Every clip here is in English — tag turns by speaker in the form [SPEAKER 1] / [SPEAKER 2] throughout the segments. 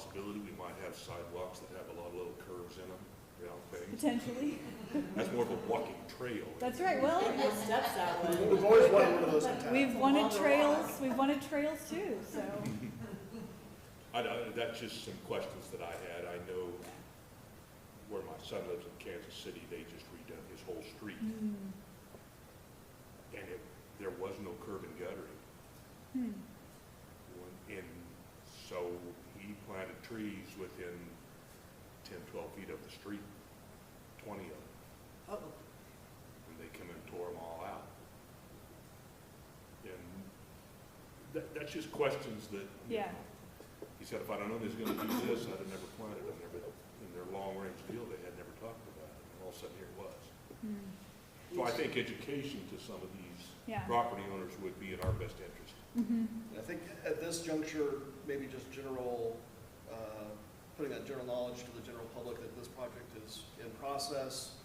[SPEAKER 1] possibility we might have sidewalks that have a lot of little curves in them, you know, things.
[SPEAKER 2] potentially.
[SPEAKER 1] That's more of a walking trail.
[SPEAKER 2] That's right, well,
[SPEAKER 3] More steps that way.
[SPEAKER 4] We've always wanted one of those in town.
[SPEAKER 2] we've
[SPEAKER 3] From
[SPEAKER 2] wanted
[SPEAKER 3] all the
[SPEAKER 2] trails,
[SPEAKER 3] rock.
[SPEAKER 2] we've wanted trails too, so.
[SPEAKER 1] I, don't- that's just some questions that I had. I know where my son lives in Kansas City, they just redone his whole street.
[SPEAKER 2] Mm-hmm.
[SPEAKER 1] And it, there was no curb and guttering.
[SPEAKER 2] Hmm.
[SPEAKER 1] And so he planted trees within 10, 12 feet of the street, 20 of them.
[SPEAKER 3] Oh,
[SPEAKER 1] And they come and tore them all out. And that, that's just questions that. you
[SPEAKER 2] Yeah.
[SPEAKER 1] know, He said, if I'd have known he was gonna do this, I'd have never planted them, never, in their long-range deal, they had never talked about it, and all of a sudden, here it was.
[SPEAKER 2] Hmm.
[SPEAKER 1] So I think education to some of these
[SPEAKER 2] Yeah.
[SPEAKER 1] property owners would be in our best interest.
[SPEAKER 2] Mhm.
[SPEAKER 4] I think at this juncture, maybe just general, uh, putting that general knowledge to the general public that this project is in process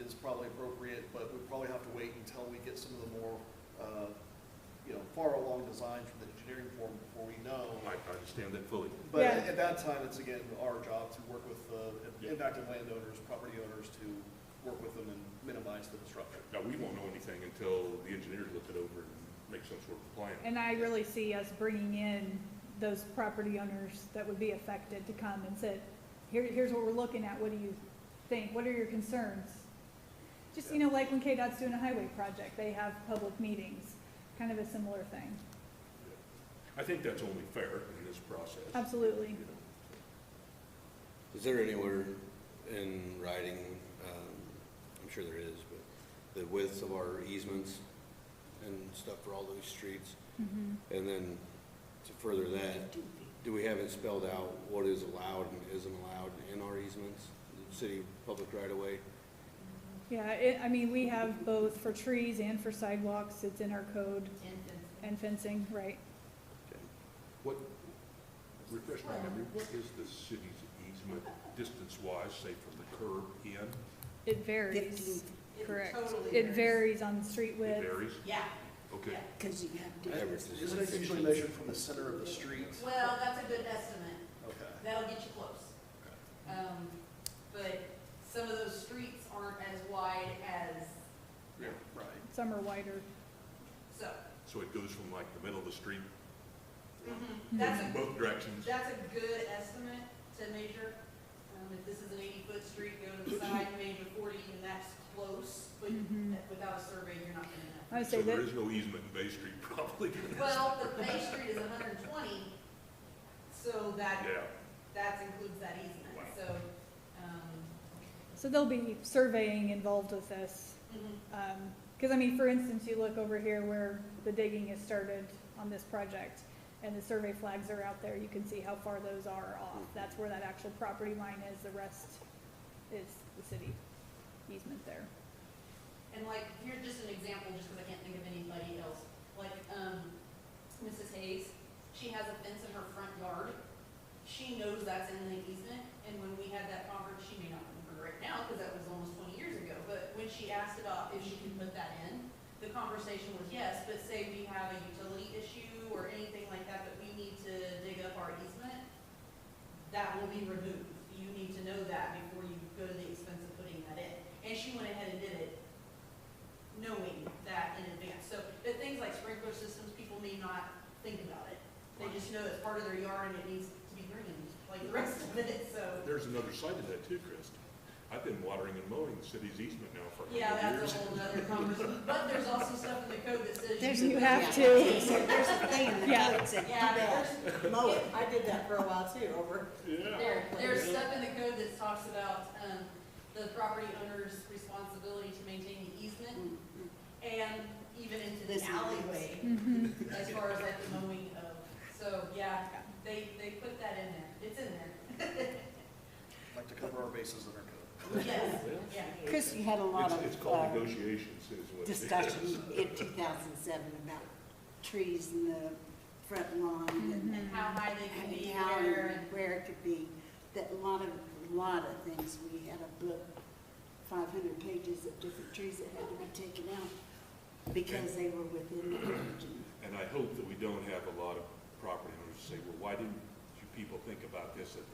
[SPEAKER 4] is probably appropriate, but we probably have to wait until we get some of the more, uh, you know, far along designs from the engineering forum before we know.
[SPEAKER 1] Oh, I, I understand that fully.
[SPEAKER 4] But
[SPEAKER 2] Yeah.
[SPEAKER 4] at that time, it's again, our job to work with the impacted landowners, property owners, to work with them and minimize the disruption.
[SPEAKER 1] Now, we won't know anything until the engineers look it over and make some sort of plan.
[SPEAKER 2] And I really see us bringing in those property owners that would be affected to come and say, here, here's what we're looking at, what do you think, what are your concerns? Just, you know, like when KDOT's doing a highway project, they have public meetings, kind of a similar thing.
[SPEAKER 1] I think that's only fair in this process.
[SPEAKER 2] Absolutely.
[SPEAKER 1] You know,
[SPEAKER 5] Is there anywhere in writing, um, I'm sure there is, but the width of our easements and stuff for all those streets? And then to further that, do we have it spelled out what is allowed and isn't allowed in our easements? The City public right away.
[SPEAKER 2] Yeah, it, I mean, we have both for trees and for sidewalks, it's in our code, and fencing, right?
[SPEAKER 1] What, refresh my memory, what is the city's easement distance-wise, say from the curb in?
[SPEAKER 2] It varies,
[SPEAKER 3] It
[SPEAKER 2] correct.
[SPEAKER 3] totally
[SPEAKER 2] It
[SPEAKER 3] varies.
[SPEAKER 2] varies on street
[SPEAKER 1] It
[SPEAKER 2] width.
[SPEAKER 1] varies?
[SPEAKER 3] Yeah.
[SPEAKER 1] Okay.
[SPEAKER 3] yeah.
[SPEAKER 6] Because you have to,
[SPEAKER 5] Average is
[SPEAKER 4] Isn't it usually
[SPEAKER 5] 16.
[SPEAKER 4] measured from the center of the street?
[SPEAKER 3] Well, that's a good estimate.
[SPEAKER 4] Okay.
[SPEAKER 3] That'll get you close. Um, but some of those streets aren't as wide as,
[SPEAKER 4] Yeah, right.
[SPEAKER 2] Some are wider.
[SPEAKER 3] so,
[SPEAKER 1] So it goes from like the middle of the street,
[SPEAKER 2] Mm-hmm.
[SPEAKER 3] that's a,
[SPEAKER 1] both directions?
[SPEAKER 3] that's a good estimate to measure. Um, if this is an eighty-foot street, go to the side, measure forty, and that's close, but
[SPEAKER 2] Mhm.
[SPEAKER 3] without a survey, you're not gonna know.
[SPEAKER 2] I would
[SPEAKER 1] So
[SPEAKER 2] say
[SPEAKER 1] there
[SPEAKER 2] that,
[SPEAKER 1] is no easement in Bay Street probably.
[SPEAKER 3] Well, but Bay Street is hundred and twenty, so that,
[SPEAKER 1] Yeah,
[SPEAKER 3] that includes that easement,
[SPEAKER 1] Wow.
[SPEAKER 3] so, um,
[SPEAKER 2] so there'll be surveying involved with this.
[SPEAKER 3] mhm.
[SPEAKER 2] Because I mean, for instance, you look over here where the digging has started on this project, and the survey flags are out there, you can see how far those are off. That's where that actual property line is, the rest is the city easement there.
[SPEAKER 3] And like, here's just an example, just because I can't think of anybody else. Like, um, Mrs. Hayes, she has a fence in her front yard. She knows that's in the easement, and when we had that conference, she may not remember right now, because that was almost twenty years ago. But when she asked about if she could put that in, the conversation was yes, but say we have a utility issue or anything like that, that we need to dig up our easement, that will be removed. You need to know that before you go to the expense of putting that in. And she went ahead and did it, knowing that in advance. So, but things like sprinkler systems, people may not think about it. They just know it's part of their yard and it needs to be green, like the rest of it, so.
[SPEAKER 1] there's another side to that too, Chris. I've been watering and mowing the city's easement now for a
[SPEAKER 3] Yeah,
[SPEAKER 1] hundred
[SPEAKER 3] that's
[SPEAKER 1] years.
[SPEAKER 3] a whole nother conversation. But there's also stuff in the code that says.
[SPEAKER 6] There's
[SPEAKER 2] You
[SPEAKER 6] a-
[SPEAKER 2] have
[SPEAKER 6] yeah,
[SPEAKER 2] to.
[SPEAKER 6] so There's a thing in the
[SPEAKER 2] Yeah.
[SPEAKER 6] code that said,
[SPEAKER 3] Yeah, there's,
[SPEAKER 6] you better mow it. I did that for a while too, over.
[SPEAKER 1] Yeah.
[SPEAKER 3] There, there's stuff in the code that talks about, um, the property owner's responsibility to maintain the easement and even into the
[SPEAKER 6] This is-
[SPEAKER 3] alleyway,
[SPEAKER 2] Mm-hmm.
[SPEAKER 3] as far as like the mowing of, so, yeah, they, they put that in there, it's in there,
[SPEAKER 4] Like to cover our bases in our code.
[SPEAKER 3] yes, yeah.
[SPEAKER 6] Christie had a lot
[SPEAKER 1] It's, it's
[SPEAKER 6] of
[SPEAKER 1] called
[SPEAKER 6] uh,
[SPEAKER 1] negotiations is what. it is.
[SPEAKER 6] discussion in 2007 about trees in the front lawn and
[SPEAKER 3] And how high they can be
[SPEAKER 6] and how
[SPEAKER 3] there
[SPEAKER 6] and
[SPEAKER 3] and,
[SPEAKER 6] where it could be. That a lot of, lot of things, we had a book, 500 pages of different trees that had to be taken out because they were within the region.
[SPEAKER 1] And I hope that we don't have a lot of property owners say, well, why didn't you people think about this at